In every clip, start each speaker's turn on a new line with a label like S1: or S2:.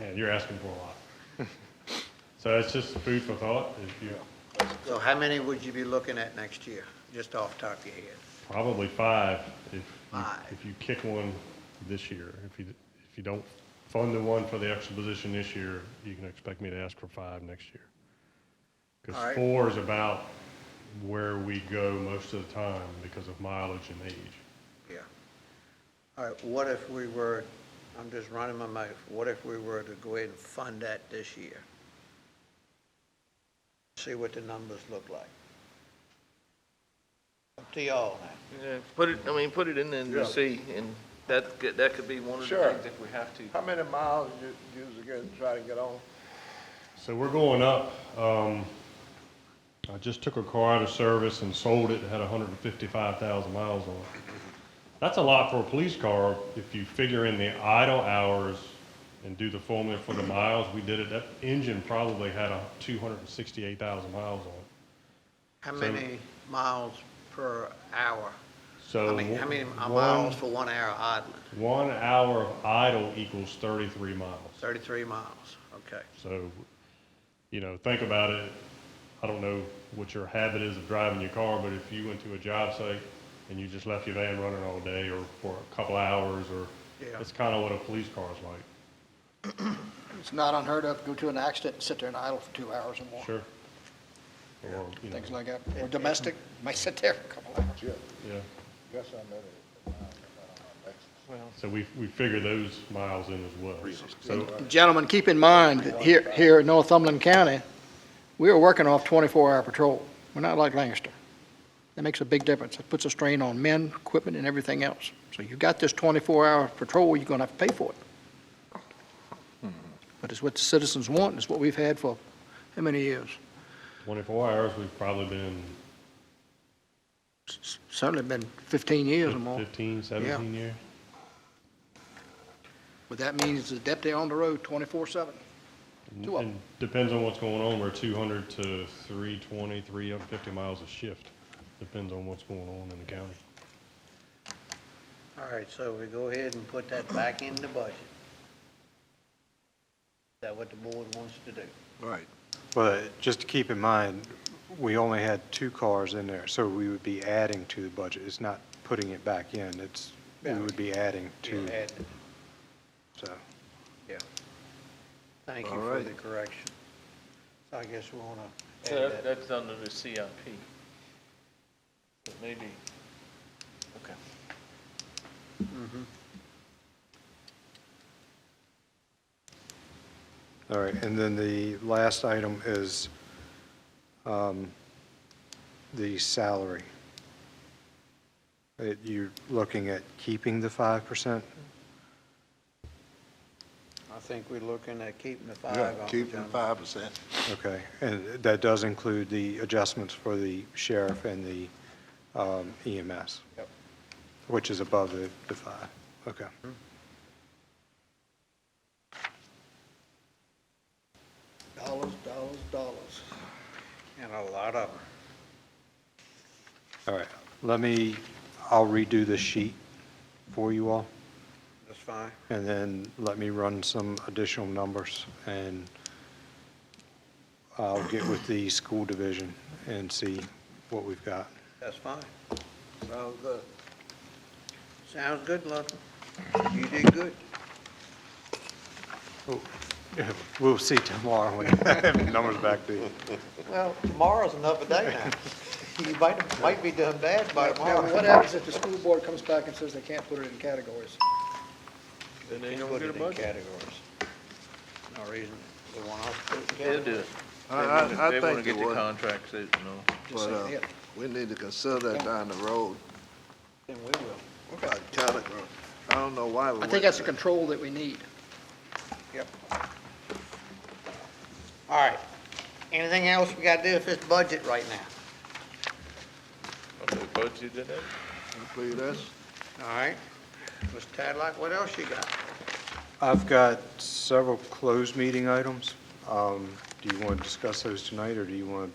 S1: man, you're asking for a lot. So it's just food for thought, if you,
S2: So how many would you be looking at next year, just off the top of your head?
S1: probably five, if, you-
S2: Five.
S1: if you kick one this year. If you, if you don't fund the one for the extra position this year, you can expect me to ask for five next year.
S2: All
S1: Because
S2: right.
S1: four is about where we go most of the time because of mileage and age.
S2: Yeah. All right, what if we were, I'm just running my mouth, what if we were to go ahead and fund that this year? See what the numbers look like. Up to y'all now.
S3: Yeah, Put it, I mean, put it in there and just see, and that, could- that could be one of the
S4: Sure.
S3: things if we have to.
S4: How many miles you usually get, try to get on?
S1: So we're going up. Um, I just took a car out of service and sold it. It had 155,000 miles on it. That's a lot for a police car. If you figure in the idle hours and do the formula for the miles, we did it. That engine probably had a 268,000 miles on it.
S2: How
S1: So-
S2: many miles per hour?
S1: So
S2: I mean, how many
S1: one-
S2: miles for one hour idling?
S1: One hour of idle equals 33 miles.
S2: Thirty-three miles, okay.
S1: So, you know, think about it. I don't know what your habit is of driving your car, but if you went to a job site and you just left your van running all day or for a couple hours or,
S2: Yeah.
S1: that's kind of what a police car is like.
S5: It's not unheard of, go to an accident and sit there and idle for two hours or more.
S1: Sure. Or, you know,
S5: Things like that. Or domestic, might sit there for a couple hours.
S4: Yeah,
S1: yeah.
S4: guess I met it. uh,
S1: So we, we figure those miles in as well. So,
S5: Gentlemen, keep in mind that here, here in Northumberland County, we are working off 24-hour patrol. We're not like Lancaster. That makes a big difference. It puts a strain on men, equipment, and everything else. So you got this 24-hour patrol, you're going to have to pay for it. But it's what the citizens want, and it's what we've had for how many years?
S1: twenty-four hours, we've probably been
S5: S- Certainly been 15 years or more.
S1: fifteen, seventeen years.
S5: But that means the deputy on the road 24/7. Two of
S1: And depends on what's going on, we're two hundred to 320, 350 miles a shift. Depends on what's going on in the county.
S2: All right, so we go ahead and put that back in the budget. Is that what the board wants to do?
S4: Right.
S6: Well, just to keep in mind, we only had two cars in there, so we would be adding to the budget. It's not putting it back in, it's, we would be adding to,
S2: Add-
S6: so.
S2: Yeah. Thank you
S4: All
S2: for
S4: right.
S2: the correction. So I guess we want to
S3: So
S2: add
S3: that-
S2: that.
S3: that's under the CIP. But Maybe, okay.
S6: All right, and then the last item is um, the salary. That You're looking at keeping the 5%?
S2: I think we're looking at keeping the five
S4: Yeah,
S2: on the
S4: keep them
S2: general.
S4: five percent.
S6: Okay, and that does include the adjustments for the sheriff and the um, EMS?
S2: Yep.
S6: Which is above the, the five, okay.
S5: Dollars, dollars, dollars.
S2: And a lot of them.
S6: All right, let me, I'll redo the sheet for you all,
S2: That's fine.
S6: and then let me run some additional numbers, and I'll get with the school division and see what we've got.
S2: That's fine.
S4: Sounds good.
S2: Sounds good, Lutton. You did good.
S6: We'll see tomorrow when I have the numbers back to you.
S2: Well, tomorrow's another day now. You might, might be done bad by
S5: Now, what happens if the school board comes back and says they can't put it in categories?
S3: Then they
S2: You
S3: don't
S2: put
S3: get a
S2: it in
S3: budget.
S2: categories. No reason they want us to. put it in
S3: They'll do
S2: categories.
S3: it.
S4: I, I,
S3: They wanna
S4: I think it
S3: get the
S4: would,
S3: contracts, they, you know.
S5: Just
S4: but,
S5: saying
S4: uh,
S5: it.
S4: we need to consider that down the road,
S2: Then we will.
S4: like telegraph. I don't know why we
S5: I
S4: went
S5: think that's the
S4: to
S5: control that we need.
S2: All right. Anything else we gotta do with this budget right now?
S3: Okay, Budget did that.
S4: that. Include us.
S2: All right. Mr. Tadlock, what else you got?
S6: I've got several closed meeting items. Um, Do you want to discuss those tonight, or do you want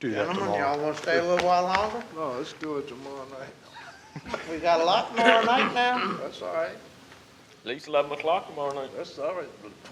S6: to do that
S2: Gentlemen,
S6: tomorrow?
S2: y'all wanna stay a little while longer?
S4: No, let's do it tomorrow night.
S2: We got a lot more night now.
S4: That's all right.
S3: At least eleven o'clock tomorrow night.
S4: That's all right.